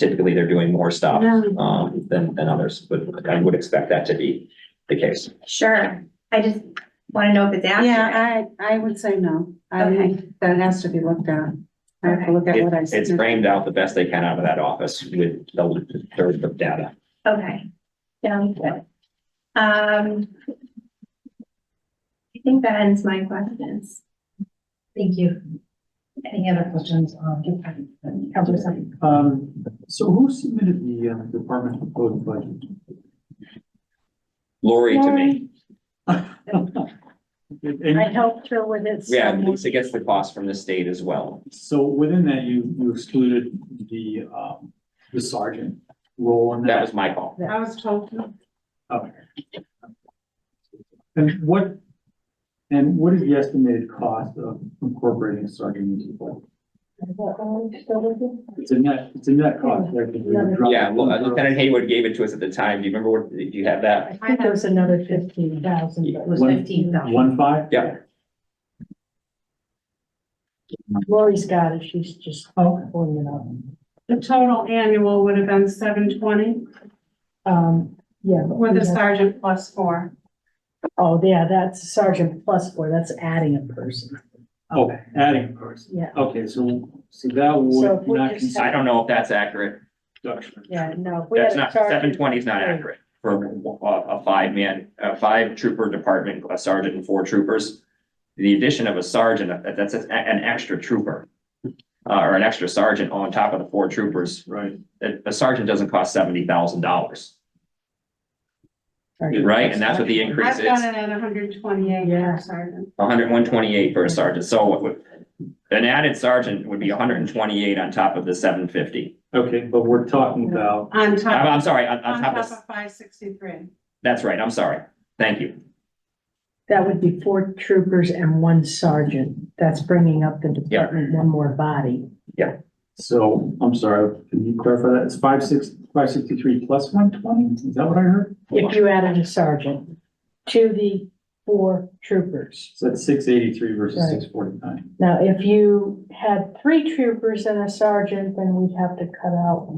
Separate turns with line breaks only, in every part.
typically they're doing more stuff,
Yeah.
um, than, than others, but I would expect that to be the case.
Sure, I just wanna know if it's accurate.
Yeah, I, I would say no. I,
Okay.
would- that has to be looked at. I have to look at what I
It-
said.
Mm-hmm.
It's framed out the best they can out of that office with the third of data.
Okay, sounds good. Um. I think that ends my questions.
Thank you. Any other questions on Counselor Sutton?
Um, so who submitted the uh, department proposed budget?
Lori to me,
And
helped her with it.
yeah, Lisa gets the cost from the state as well.
so within that, you, you excluded the, um, the sergeant role in
That
that.
was my call.
I was told.
Okay. And what, and what is the estimated cost of incorporating sergeant into the budget? It's a net, it's a net cost. right? Because you're dropping-
Yeah, well, uh, Lieutenant Haywood gave it to us at the time. Do you remember what, do you have that?
I think there was another fifteen thousand, it was
One-
fifteen thousand.
One five?
Yeah.
Lori's got it, she's just
Oh.
pulling it up.
The total annual would have been seven twenty
Um, yeah. but
with
we
a
have-
sergeant plus four.
Oh, yeah, that's sergeant plus four, that's adding a person.
Oh, adding a person.
Yeah,
Okay, so, so that
So if
would
we
not
just
consider
I don't know if that's accurate.
reduction.
yeah, no. if we
That's
had a
not,
sergeant-
seven twenty is not accurate for a, a five man, a five trooper department, a sergeant and four troopers. The addition of a sergeant, uh, that's a- an extra trooper. Uh, or an extra sergeant on top of the four troopers.
Right.
A a sergeant doesn't cost seventy thousand dollars,
Sergeant
right?
plus
And that's what the
four.
increase
I've
is.
got it at hundred twenty-eight
Yeah.
for sergeant.
hundred, one twenty-eight for a sergeant, so what would- an added sergeant would be hundred and twenty-eight on top of the seven fifty.
Okay, but we're talking about,
On
I'm,
top,
I'm sorry, on,
on
on top of,
top of five sixty-three.
that's right, I'm sorry, thank you.
That would be four troopers and one sergeant. That's bringing up the department one more body.
so, I'm sorry, can you clarify that? It's five six, five sixty-three plus one twenty? Is that what I heard?
If you added a sergeant to the four troopers.
So that's six eighty-three versus
Right.
six forty-nine.
Now, if you had three troopers and a sergeant, then we'd have to cut out.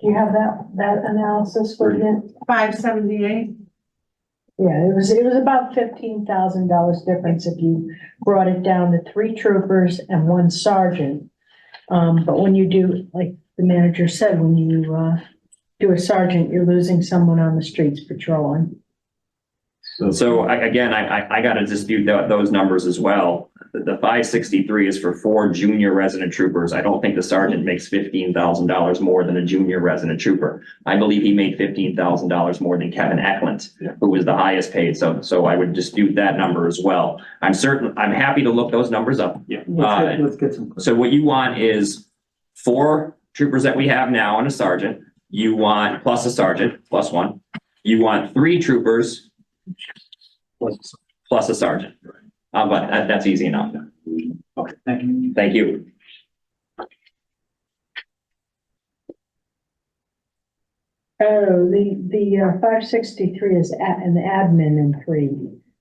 Do you have that, that analysis for you?
Five seventy-eight,
Yeah, it was, it was about fifteen thousand dollars difference if you brought it down to three troopers and one sergeant. Um, but when you do, like the manager said, when you, uh, do a sergeant, you're losing someone on the streets patrolling.
So I, again, I, I, I gotta dispute tho- those numbers as well. The, the five sixty-three is for four junior resident troopers, I don't think the sergeant makes fifteen thousand dollars more than a junior resident trooper. I believe he made fifteen thousand dollars more than Kevin Eklund,
Yeah.
who was the highest paid, so, so I would dispute that number as well. I'm certain, I'm happy to look those numbers up,
Yeah, let's get, let's get some.
So what you want is four troopers that we have now and a sergeant. You want plus a sergeant, plus one. You want three troopers
let's-
plus a sergeant. Uh, but that, that's easy enough.
Okay, thank you.
Thank you.
Oh, the, the five sixty-three is a- an admin in three.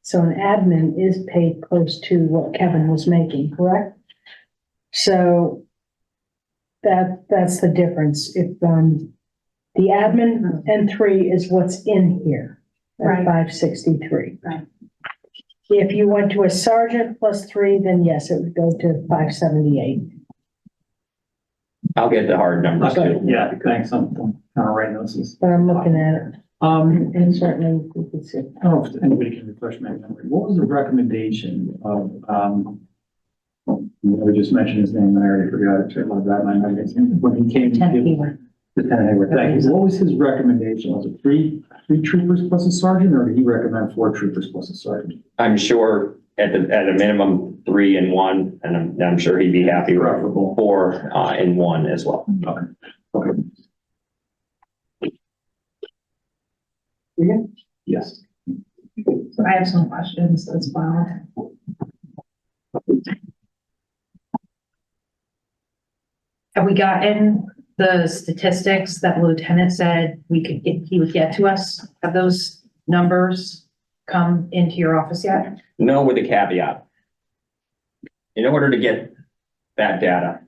So an admin is paid close to what Kevin was making, correct? So that, that's the difference. If, um, the admin and three is what's in here at
Right.
five sixty-three.
Right.
If you went to a sergeant plus three, then yes, it would go to five seventy-eight.
I'll get the hard numbers
Okay,
too.
yeah, thanks, I'm, I'm kind of writing those. as-
But I'm looking at it
Um,
and certainly we could see.
I don't know if anybody can refresh my memory. What was the recommendation of, um, you know, we just mentioned his name, and I already forgot it, so I love that, my memory, when he came. to
Ten
give-
fewer.
Lieutenant Hayward, thank you. What was his recommendation? Was it three, three troopers plus a sergeant, or did he recommend four troopers plus a sergeant?
I'm sure at the, at a minimum, three and one, and I'm, I'm sure he'd be happy with
Preferable.
four, uh, and one as well.
Okay. Yes.
So I have some questions as well.
Have we gotten the statistics that Lieutenant said we could get, he would get to us? Have those numbers come into your office yet?
No with a caveat. In order to get that data,